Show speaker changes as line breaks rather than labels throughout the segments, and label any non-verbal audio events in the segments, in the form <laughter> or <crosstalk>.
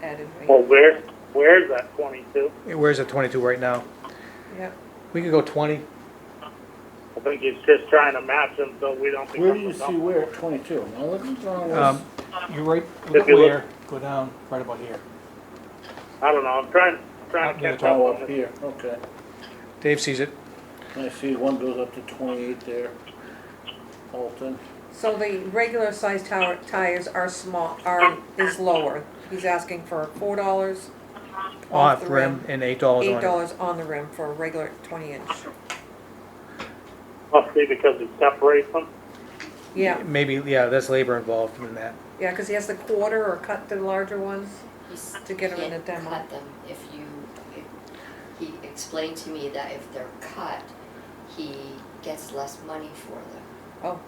didn't
Well,
we?
where, where's that twenty-two?
Where's it, 22 right now?
Yep.
We could go 20.
I think he's just trying to match them so we don't become.
Where do you
a
see
dump.
where, twenty-two? Now, look what's wrong
Um,
with,
You're right,
If you
where, go down, right about here.
I don't know, I'm trying, trying
Up
to
near the
catch up
oh,
on
up
this.
here, okay.
Dave sees it.
I see one goes up to twenty-eight there. Alton,
So the regular sized tower, tires are small, are, is lower. He's asking for four dollars off the rim,
and $8 on it.
eight dollars on the rim for a regular twenty inch.
Must be because it separates them.
Yeah,
Maybe, yeah, that's labor involved in that.
yeah, cause he has to quarter or cut the larger ones.
He's-
To get 'em in
can't
a demo.
Cut them if you, if, he explained to me that if they're cut, he gets less money for them.
Oh,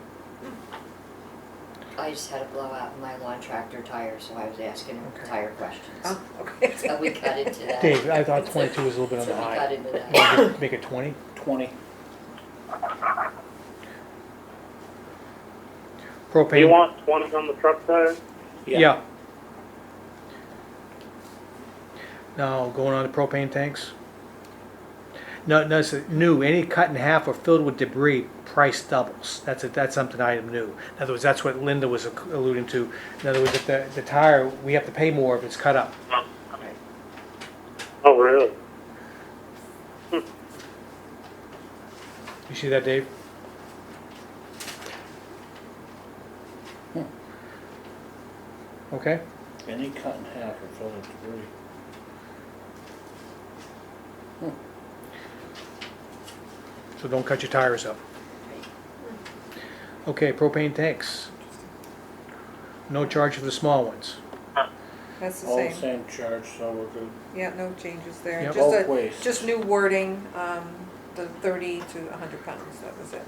I just had a blowout in my lawn tractor tire, so I was asking him
Okay.
tire questions.
oh, <laughs> okay.
But we cut into that.
Dave, I thought 22 was a little bit on
So
the
we cut
high.
into
<laughs>
that.
Maybe Make it 20?
twenty.
Do you
Propane,
want twenty on the truck tires?
yeah. Now, going on to propane tanks. No, no, it's new, any cut in half or filled with debris, price doubles. That's, a- that's something item new. In other words, that's what Linda was alluding to. In other words, if the, the tire, we have to pay more if it's cut up.
Oh, really?
You see that, Dave? Okay,
Any cut in half or filled with debris.
so don't cut your tires up. Okay, propane tanks. No charge for the small ones.
That's the
All the
same.
same charge, so we're good.
Yeah, no changes there.
Yep.
Just
Bulk
a-
waste.
Just new wording, um, the thirty to hundred pounds, that was it.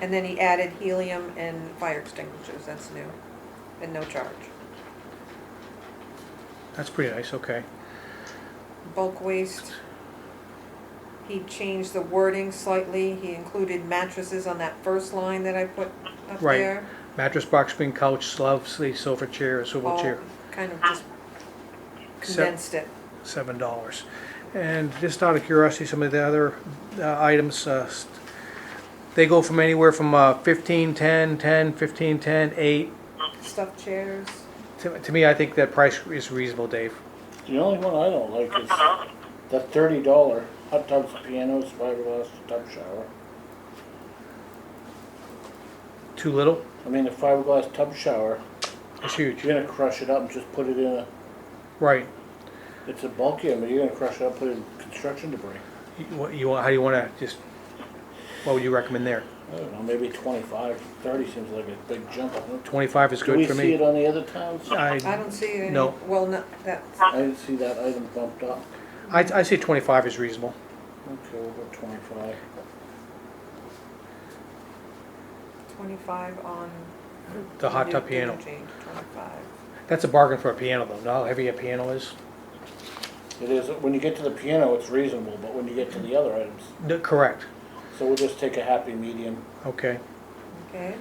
And then he added helium and fire extinguishers, that's new, and no charge.
That's pretty nice, okay.
Bulk waste, he changed the wording slightly, he included mattresses on that first line that I put up
Right.
there.
Mattress, box spring, couch, slab, sleeve, sofa chair, a swivel
All
chair,
Kind of just condensed it.
seven dollars. And just out of curiosity, some of the other uh, items, uh, st- they go from anywhere from uh, fifteen, ten, ten, fifteen, ten, eight.
Stuffed chairs,
To, to me, I think that price is reasonable, Dave.
The only one I don't like is the thirty dollar hot tubs, pianos, fiberglass tub shower.
Too little?
I mean, the fiberglass tub shower,
It's huge.
you're gonna crush it up and just put it in a,
Right.
it's a bulky, but you're gonna crush it up, put it in construction debris.
You, what you want, how do you want to just, what would you recommend there?
I don't know, maybe twenty-five, thirty seems like a big jump. I don't-
25 is
Do
good
we
for
see it
me.
on the other towns?
I
I,
don't see any,
No.
well, no, that's,
I didn't see that item bumped up.
I, I say 25 is reasonable.
Okay, we'll go twenty-five.
25 on.
The hot
new-
tub
new
piano.
change, 25.
That's a bargain for a piano though, know how heavy a piano is?
It is, when you get to the piano, it's reasonable, but when you get to the other items,
No, Correct,
so we'll just take a happy medium.
okay.
Okay,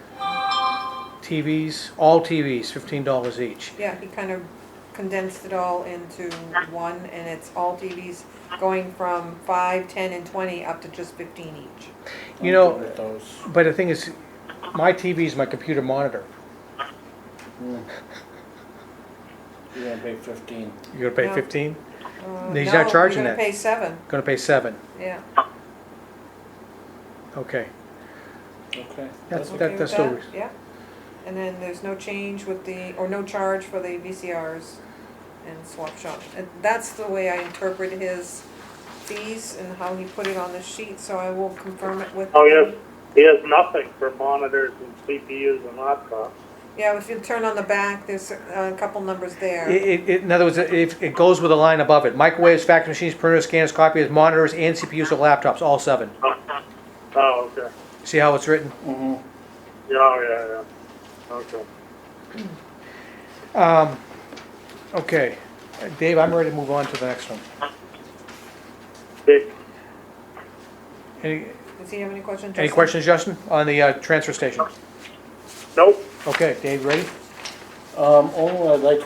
TVs, all TVs, $15 each.
yeah, he kind of condensed it all into one, and it's all TVs going from 5, 10, and 20 up to just 15 each.
I'm
You know-
good with those.
But the thing is, my TV is my computer monitor.
You're gonna pay fifteen.
You're gonna pay
No.
15?
Uh,
He's not
no, you're
charging
gonna
that.
pay 7,
Gonna pay seven,
yeah.
okay.
Okay.
That's,
Okay
that-
with
that's still,
that?
reas-
Yeah, and then there's no change with the, or no charge for the VCRs and swap shop. And that's the way I interpret his fees and how he put it on the sheet, so I will confirm it with.
Oh,
him.
yes, he has nothing for monitors and CPUs and laptops.
Yeah, if you turn on the back, there's a couple numbers there.
It- It, it, in other words, it, it goes with a line above it. Microwaves, fax machines, printers, scanners, copiers, monitors, and CPUs or laptops, all seven.
Oh, okay,
See how it's written?
hmm
yeah, oh, yeah, yeah, okay.
Um, okay, Dave, I'm ready to move on to the next one.
Big,
Any,
Does he have any questions?
any
Justin?
questions, Justin, on the, uh, transfer station?
nope.
Okay, Dave, ready?
Um, only I'd like to